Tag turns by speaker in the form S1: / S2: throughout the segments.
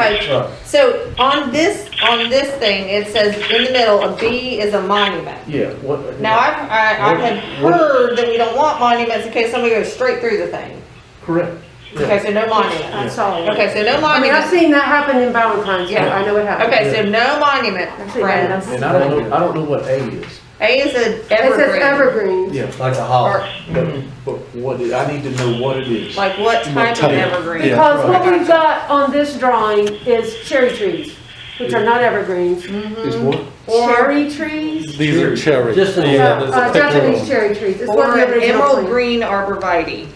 S1: Right.
S2: Right,
S1: So on this, on this thing, it says in the middle, a B is a monument.
S2: yeah, what?
S1: Now, I've, I, I had heard that we don't want monuments in case somebody goes straight through the thing.
S2: Correct. yeah.
S1: Okay, so no monument.
S3: I saw it.
S1: Okay, so no
S3: I mean, I've
S1: monument.
S3: seen that happen in Valentine's, yeah, I know it happened.
S1: Okay, so no monument,
S3: I've seen that.
S1: friends.
S2: And I don't know, I don't know what A is,
S1: A is an
S3: It says
S1: evergreen.
S3: evergreens.
S2: yeah,
S4: Like
S1: Or,
S4: a hall.
S2: but, but what, it- I need to know what it is.
S1: like what type of evergreen?
S3: Because what
S1: right.
S3: we've got on this drawing is cherry trees, which are not evergreens.
S2: Is
S1: mm-hmm.
S2: what?
S1: Or,
S3: Cherry trees?
S5: These are cherry.
S4: Just an,
S3: Uh,
S4: yeah, there's a
S3: uh,
S4: picture of
S3: Japanese
S4: them.
S3: cherry trees. It's what
S1: or
S3: the
S1: an
S3: original
S1: emerald
S3: plan.
S1: green arborvitae,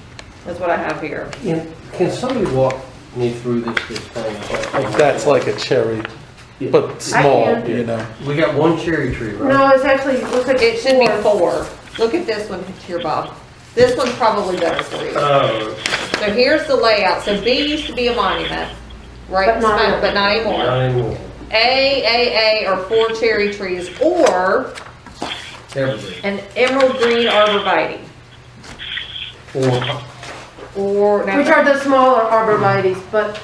S1: is what I have here.
S4: Can- Can somebody walk me through this, this thing?
S5: That's like a cherry, but
S3: I
S5: small,
S3: can.
S5: you know.
S4: We got one cherry tree, right?
S3: No, it's actually, it looks like
S1: It should be
S3: four.
S1: four. Look at this one here, Bob. This one's probably better for you.
S6: Oh,
S1: So here's the layout. So B used to be a monument, right?
S3: But not
S1: smack- But not anymore.
S4: Nine more.
S1: A, A, A are four cherry trees or
S4: Evergreen.
S1: an emerald green arborvitae.
S4: Or
S1: Or, now,
S3: Which are the smaller arborvitaes, but.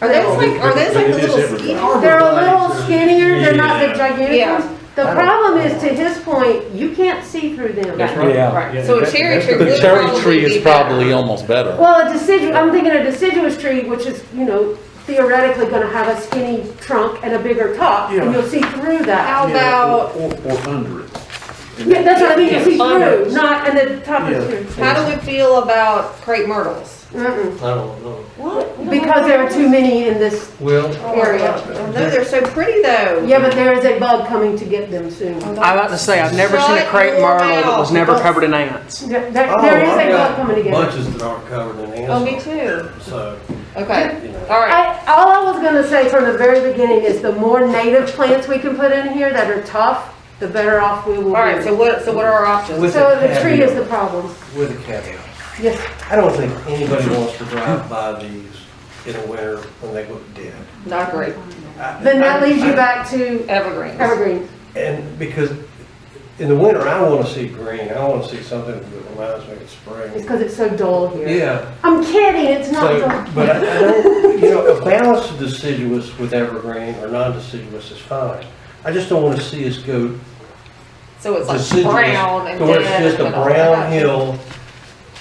S1: are those like, are those like the
S2: It is
S1: little
S2: evergreen.
S1: skinny?
S3: They're a little skinnier, they're not the gigantic
S1: Yeah.
S3: ones. The problem is, to his point, you can't see through them.
S1: Yeah.
S5: Yeah.
S1: Right. So a
S2: that-
S1: cherry
S2: that's
S1: tree
S2: the-
S5: The
S1: would
S5: cherry
S1: probably
S5: tree
S1: be
S5: is
S1: better.
S5: probably almost better.
S3: Well, a deciduous, I'm thinking a deciduous tree, which is, you know, theoretically gonna have a skinny trunk and a bigger top,
S2: Yeah.
S3: and you'll see through that.
S1: How
S2: Yeah,
S1: about,
S2: Or, or- or under it.
S3: Yeah, that's what I mean, you'll see
S1: Yeah.
S3: through, not, and the top is
S2: Yeah.
S3: through.
S1: how do we feel about crepe myrtles?
S3: Mm-mm.
S4: I don't know.
S1: What?
S3: Uh-uh. Because there are too many in this
S4: Well,
S1: Area. No, Oh, they're so pretty though.
S3: Yeah, but there is a bug coming to get them soon. There
S1: Oh,
S7: I was about to say, I've never seen a
S1: Shut
S7: crepe
S1: your
S7: myrtle that was
S1: mouth.
S7: never covered in ants.
S3: there-
S2: Oh,
S3: there is a bug coming to get them.
S4: bunches that aren't covered in ants.
S1: Oh, me too.
S4: So,
S1: Okay,
S4: you know.
S1: all right.
S3: I, all I was gonna say from the very beginning is the more native plants we can put in here that are tough, the better off we will be.
S1: All right, so what, so what are our options?
S4: With
S3: So
S4: the
S3: the tree
S4: caveat.
S3: is the problem.
S4: With a caveat.
S3: Yes,
S4: I don't think anybody wants to drive by these in the winter when they look dead.
S1: Not great.
S4: I-
S3: then that
S4: I-
S3: leaves you
S4: I-
S3: back to
S1: Evergreens.
S3: evergreens.
S4: And because in the winter, I want to see green. I want to see something that reminds me of
S3: It's
S4: spring.
S3: because it's so dull here.
S4: Yeah.
S3: I'm kidding, it's not
S4: So,
S3: dull.
S4: but I I don't, you know, a balance of deciduous with evergreen or non-deciduous is fine. I just don't want to see us go
S1: So it's like
S4: deciduous.
S1: brown and
S4: To where it's
S1: dead
S4: just a
S1: and all
S4: brown
S1: that.
S4: hill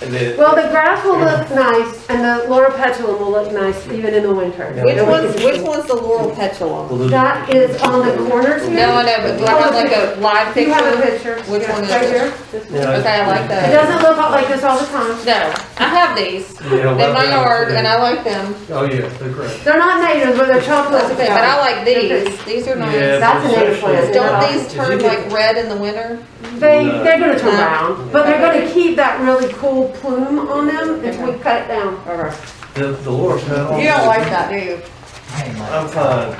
S4: and then.
S3: Well, the grass will look nice and the laura petulum will look nice even in the winter.
S4: Yeah.
S1: Which one's, which one's the laurel petalum?
S3: That is on the corners here.
S1: No, I know, but do I have like a live
S3: You have a
S1: picture?
S3: picture.
S1: Which
S3: Yeah,
S1: one is
S3: Right
S1: it?
S3: here. This one.
S4: Yeah.
S1: Okay, I like
S3: It
S1: that.
S3: doesn't look like this all the time.
S1: No, I have these
S4: You know,
S1: in
S4: like
S1: my
S4: that.
S1: yard and I like them.
S4: Oh, yeah, they're great.
S3: They're not native, but they're chocolate.
S1: Oh, That's okay, but I like these. These are nice.
S4: Yeah,
S3: That's an
S4: but
S3: eggplant.
S4: essentially-
S1: Don't
S3: Yeah.
S1: these turn
S4: Is it-
S1: like red in the winter?
S3: They,
S4: No.
S3: they're gonna turn
S1: No.
S3: brown, but they're gonna keep that really cool plume on them until we
S1: Okay.
S3: cut it down.
S1: Okay. Oh.
S4: The, the Laura petal.
S1: You don't like that, do you?
S8: Oh.
S4: I'm fine.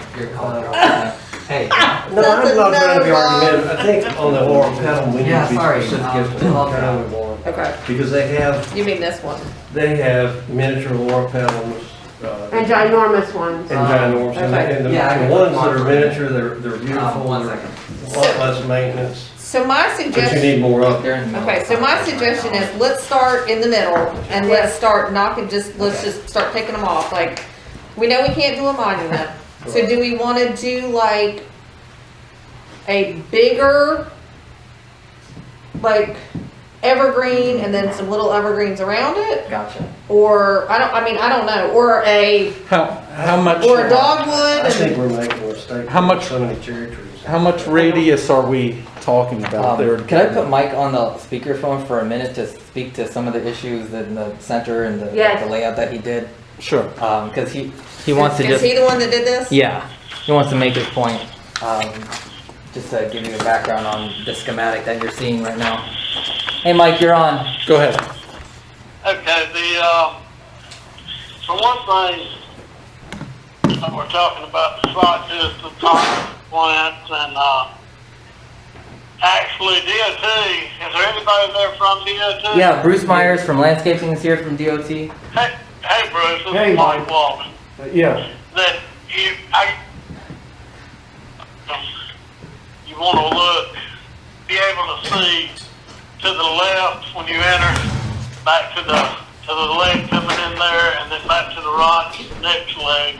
S8: Hey,
S4: No, I'm not trying to be
S1: Another
S4: argumentative. I think on the Laura petal, we need
S8: Yeah,
S4: to be
S8: sorry,
S4: specific
S8: um,
S4: as to what
S8: okay.
S4: kind we want.
S1: Okay,
S4: Because they have,
S1: you mean this one?
S4: they have miniature Laura petals. uh,
S3: And ginormous ones.
S4: And ginormous, and the- and the,
S8: um, Yeah, I
S4: the
S8: can
S4: ones that
S8: watch
S4: are
S8: them.
S4: miniature, they're, they're
S8: um,
S4: beautiful,
S8: one
S4: they're
S8: second.
S4: a lot less maintenance,
S1: So my
S4: but you
S1: suggestion.
S4: need more of them.
S8: They're in the middle
S1: Okay,
S8: of
S1: so my
S8: something right
S1: suggestion
S8: now.
S1: is, let's start in the middle, and let's start knocking, just, let's just start taking them off, like, we know we can't do a monument, so do we wanna do like a bigger, like, evergreen, and then some little evergreens around it,
S8: Gotcha.
S1: or, I don't, I mean, I don't know, or a,
S5: How, how
S1: or a
S5: much,
S1: dogwood,
S4: I think
S1: and-
S4: we're making a mistake.
S5: How much-
S4: with So many cherry trees.
S5: how much radius are we talking about there?
S8: Um, Can I put Mike on the speakerphone for a minute to speak to some of the issues in the center and the
S3: Yes.
S8: the layout that he did?
S5: Sure.
S8: Um 'cause cause he, he wants to
S1: is
S8: just,
S1: he the one that did this?
S8: yeah, he wants to make his point. Um, just to give you a background on the schematic that you're seeing right now. Hey, Mike, you're on.
S5: Go ahead.
S9: Okay, the, um, for one thing, uh, we're talking about the site distance, toxic plants, and, uh, actually DOT, is there anybody there from DOT?
S8: Yeah, Bruce Myers from Landscaping is here from DOT.
S9: Hey, hey Bruce, this
S2: Hey,
S9: is
S2: Mike.
S9: Mike Walton.
S2: Yeah,
S9: That you, I, um, you wanna look, be able to see to the left when you enter, back to the, to the leg coming in there, and then back to the right, next leg,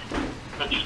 S9: which is